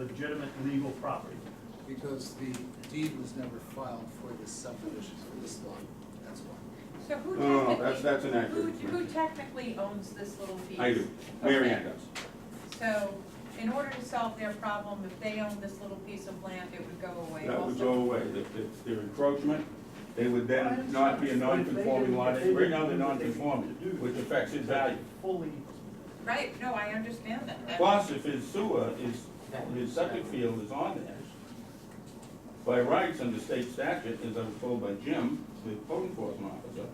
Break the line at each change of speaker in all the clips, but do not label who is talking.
legitimate legal property.
because the deed was never filed for this subdivision, for this lot, that's why.
So who
Oh, No, no, no,
technically?
that's- that's inaccurate.
Who, who technically owns this little piece?
I do, Mary Ann
Okay.
does.
So in order to solve their problem, if they owned this little piece of land, it would go away
That would go
also.
away, If it's their encroachment, they would then not be a non-conforming lot, right now they're non-conforming, which affects his value.
Fully,
Right, no, I understand that. That-
Plus, if his sewer is, his septic field is on there, by rights under state statute, as I was told by Jim, the code enforcement officer,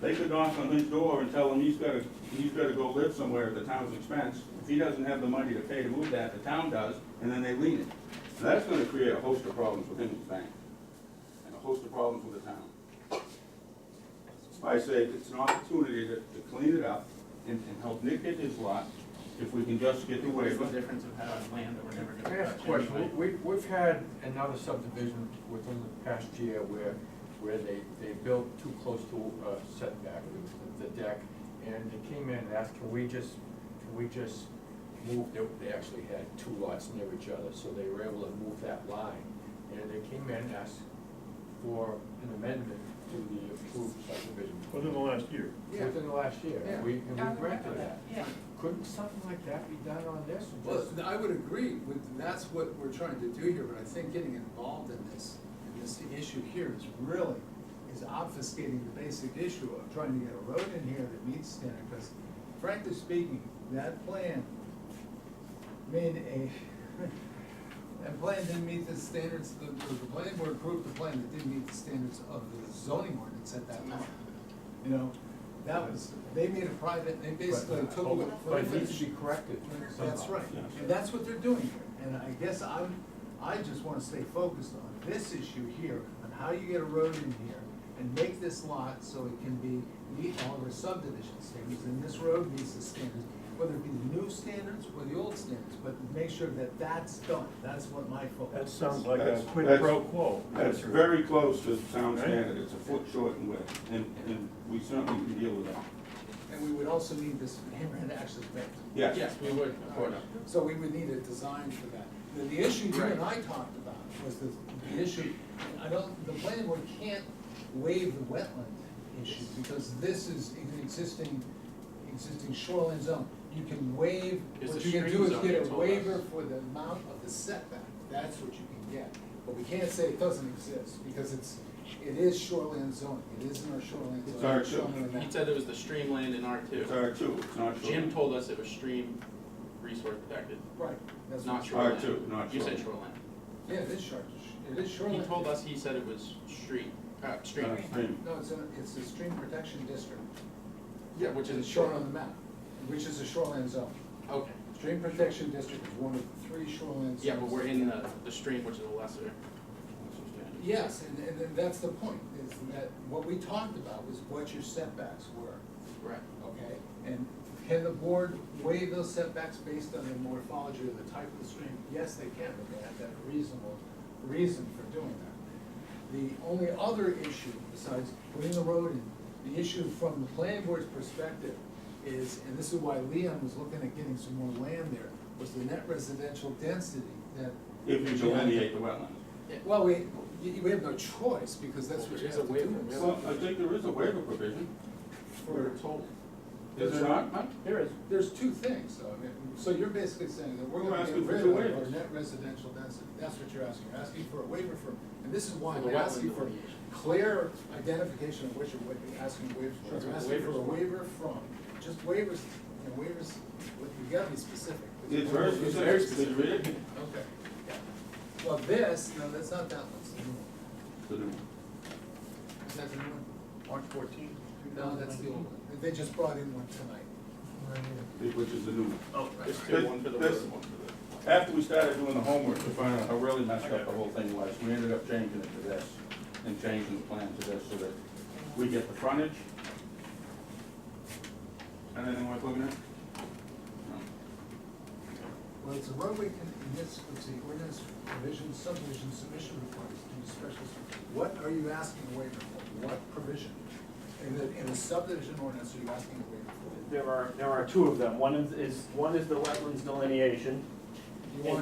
they could knock on his door and tell him he's gotta, he's gotta go live somewhere at the town's expense. If he doesn't have the money to pay to move that, the town does, and then they lien it. Now, that's gonna create a host of problems with him and his bank, and a host of problems with the town. I say it's an opportunity to, to clean it up and, and help Nick get his lot, if we can just get the
What's the
waiver.
difference of having land that we're never
Can I
gonna
ask a
touch anyway?
question? We, we've had another subdivision within the past year where, where they, they built too close to a setback, the the deck, and they came in and asked, can we just, can we just move, they, they actually had two lots near each other, so they were able to move that line. And they came in and asked for an amendment to the approved subdivision.
within the last year.
Within the last year, and we, and
I
we
remember
granted that.
Yeah.
Couldn't something like that be done on this?
Well,
Just-
I would agree with, that's what we're trying to do here, but I think getting involved in this, in this issue here is really, is obfuscating the basic issue of trying to get a road in here that meets standard, because frankly speaking, that plan made a, that plan didn't meet the standards, the, the the planning board approved the plan that didn't meet the standards of the zoning ordinance at that time. You know, that was, they made a private, they basically took away.
But it needs to be corrected.
That's
somehow.
right,
Yeah.
and that's what they're doing here, and I guess I'm, I just wanna stay focused on this issue here, on how you get a road in here, and make this lot so it can be, meet all of our subdivision standards, and this road meets the standards, whether it be the new standards or the old standards, but make sure that that's done, that's what my focus
That
is.
sounds like a
That's-
quid
that's-
pro quo.
That's very close to sound standard, it's a foot short in width, and, and we certainly can deal with that.
And we would also need this hammerhead actually built.
Yes,
Yes, we would, of course.
So we would need a design for that. The, the issue you and I talked about was the, the issue, I don't, the planning board can't waive the wetland issue because this is an existing, existing shoreline zone. You can waive,
It's
what
a
you can do
stream
is
zone, they
get a
told
waiver
us.
for the amount of the setback, that's what you can get. But we can't say it doesn't exist because it's, it is shoreline zone, it is in our shoreline zone.
It's our
shown on the
shoreline.
map.
He said it was the stream land in R two.
it's R two, it's not short.
Jim told us it was stream resource protected,
Right, that's
not
what,
shoreline.
R2, not
You said
shoreline.
shoreline.
yeah, it is shore, it is shoreline.
He told us, he said it was street, uh, stream.
Uh, stream.
No, it's a, it's a stream protection district.
Yeah, which
It's
is.
shown on the map, which is a shoreline zone.
Okay,
Stream protection district is one of three shoreline zones.
yeah, but we're in the, the stream, which is a lesser. lesser standard.
Yes, and, and then that's the point, is that what we talked about was what your setbacks were,
Right.
okay? And can the board weigh those setbacks based on the morphology or the type of the stream? Yes, they can, but they have to have a reasonable reason for doing that. The only other issue besides putting the road in, the issue from the planning board's perspective is, and this is why Leon was looking at getting some more land there, was the net residential density that.
If you delineate the wetlands.
Well, we, y- we have no choice, because that's what you
There's
have
a
to
waiver,
do.
really.
Well, I think there is a waiver provision,
We were
For-
told.
is there not, Mike?
There is.
There's two things, though, I mean, so you're basically saying that we're
We're
gonna get
asking for
rid
two
of our
waivers.
net residential density, that's what you're asking, you're asking for a waiver for, and this is why
For
I'm
the
asking
wetland
for
delineation.
clear identification of what you're, what you're asking waivers for.
Sure.
You're asking for a
Waivers.
waiver from, just waivers, and waivers, look, you gotta be specific.
It's very specific.
very
Did you read it?
Okay, yeah. Well, this, no, that's not that one, it's the new one.
The new one.
is that the new one?
March fourteenth,
No, that's the old one, they just brought in one tonight.
Which is the new one.
Oh,
There's two, one for the road,
This-
one for the.
After we started doing the homework to find out how really messed up the whole thing was, we ended up changing it to this and changing the plan to this so that we get the frontage. Anything worth looking at? No.
Well, it's a roadway con, in this, let's see, ordinance provision, subdivision submission requirements to be special. What are you asking a waiver for? What provision? In the, in the subdivision ordinance, are you asking a waiver
There are, there are two of them. One is- is, one is the wetlands delineation,